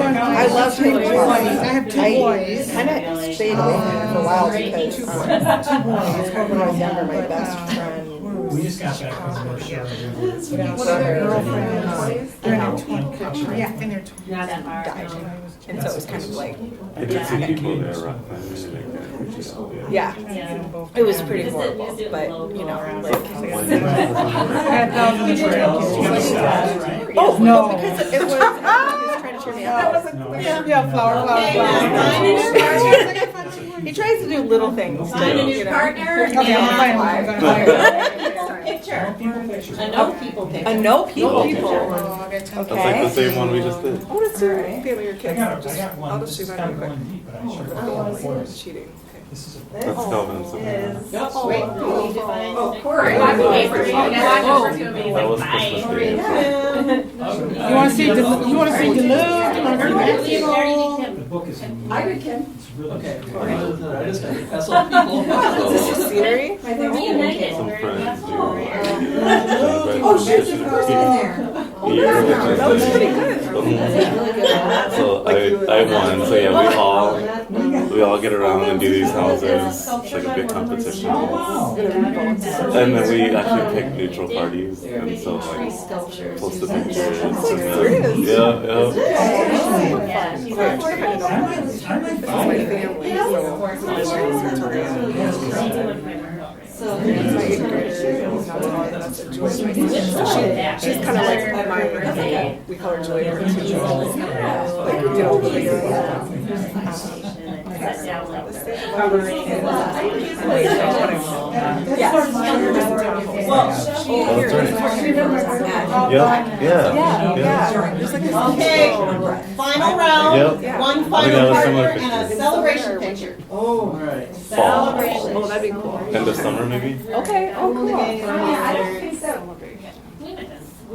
I love three boys. I have two boys. kind of stayed away from it for a while because um, Two boys. when I was younger, my best friend. We just got back from the show. What are their girlfriends? They're in their twenties, yeah, in their twenties. Not that far. And so it was kind of like, And it's the people that are on the yeah, Yeah. it was pretty horrible, but you know, like. Had thousands of kids. Oh, No. no, because it was, he was trying to turn me off. Yeah, flower, flower, Okay, now flower. He tries to do little things to, Find a you new know. partner Okay, I'm fine, I'm and gonna hire her. picture. I know people I picture. know uh, people. people. Oh, that's how- That's like the same one we just did. What is your family or I kids? got, I got one, I'll this just is do kind mine of real quick. Oh, one deep, but I should have gone for it. Cheating. This is a. That's Calvin and Savannah. That was Christmas Day. Oh, You wanna see, Delu- you wanna see Duluth, you wanna see Maxwell? The book is. I would, Kim. It's really. I just got to pass on people. Is this a scenery? Some friends do. Oh, shit, there's a person in there. That was pretty good. So I, I won, so yeah, we all, we all get around and do these houses, it's like a big competition. Oh, wow. And then we actually pick neutral parties, and so like, post the pictures. and then- Yeah, yeah. I might buy My it. family, so my parents were together. My eighth grader, and that's a Julie. She's kind of like my mom. We call her Julie. her two Jules. Like we get all the way around. Yeah, yeah, yeah. Just like this. Okay. Final round, Yep. one I think that final was partner similar and a picture. celebration picture. Oh, all right. Fall, Oh, that'd be cool. end of summer maybe? Okay, oh, cool.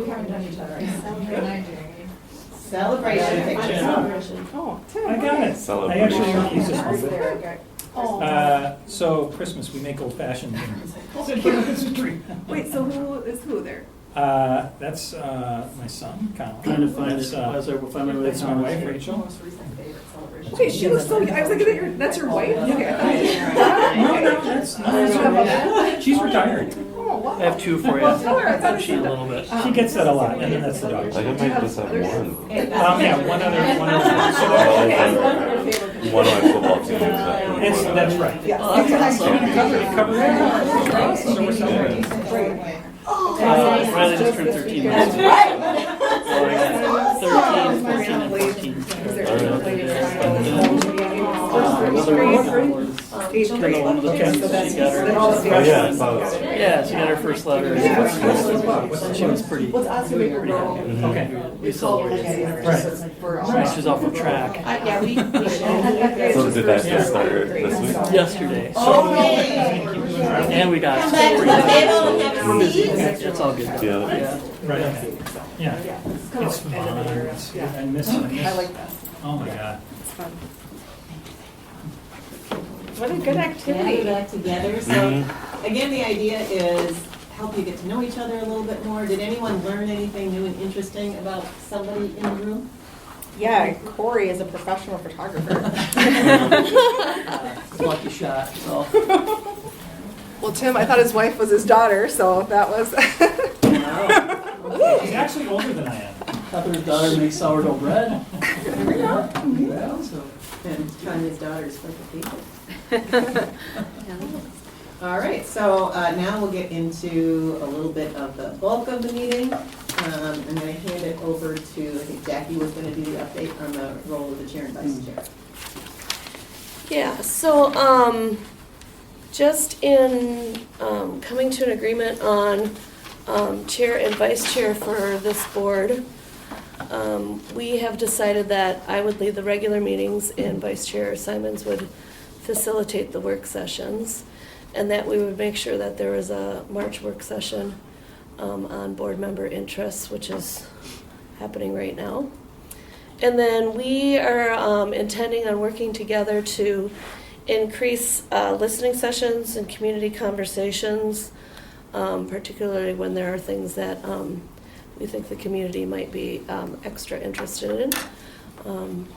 We haven't done each other. Celebration picture. Oh, I got it. I actually don't use this one. Oh. Uh, so Christmas, we make old fashioned dinner. It's a tree. Wait, so who is who there? Uh, that's, uh, my son, Colin. Trying to find That's, it, uh, as I will find my way. That's my wife, Rachel. Okay, she looks so. I was like, is that your, that's your wife? Okay, I thought you- No, no, that's, no, that's not it. She's retired. I have two for you. I'll cheat a little bit. She gets that a lot, and then that's the I dog. Um, think I just have one. yeah, one other, one other. So that- One of my football teams. that one. It's, that's right. Yeah. Cover it, cover it. So we're celebrating. Uh, Riley just turned thirteen last week. So I got Thirteen, fourteen, and fourteen. Uh, Another one was, Eighth another grade. one was a kid, so she got her. Oh, yeah, I saw that. Yeah, she got her first letter. She was pretty, Okay. we celebrated. Right. She was off of track Yeah, we, we So did that just start this week? yesterday. Oh, Okay. And we got. Come back to the table and have a seat. It's all good. Yeah. Right, okay. yeah. It's fun. It's- I miss it. I like that. Oh, my God. What a good activity. Activity together, Mm-hmm. Mm-hmm. so Mhm. again, the idea is help you get to know each other a little bit more. Did anyone learn anything new and interesting about somebody in the room? Yeah, Corey is a professional photographer. Lucky shot, so. Well, Tim, I thought his wife was his daughter, so that was. She's actually older than I am. Heather's daughter makes sourdough bread. Yeah, so. And trying his daughter's perfect people. All right, so uh, now we'll get into a little bit of the bulk of the meeting. Um, I'm going to hand it over to, I think Jackie was going to do the update on the role of the chair and vice chair. Yeah, so, um, just in, um, coming to an agreement on, um, chair and vice chair for this board, um, we have decided that I would lead the regular meetings and vice chair Simons would facilitate the work sessions. And that we would make sure that there was a March work session, um, on board member interests, which is happening right now. And then we are um, intending on working together to increase uh, listening sessions and community conversations, um, particularly when there are things that um, we think the community might be um, extra interested in. Um,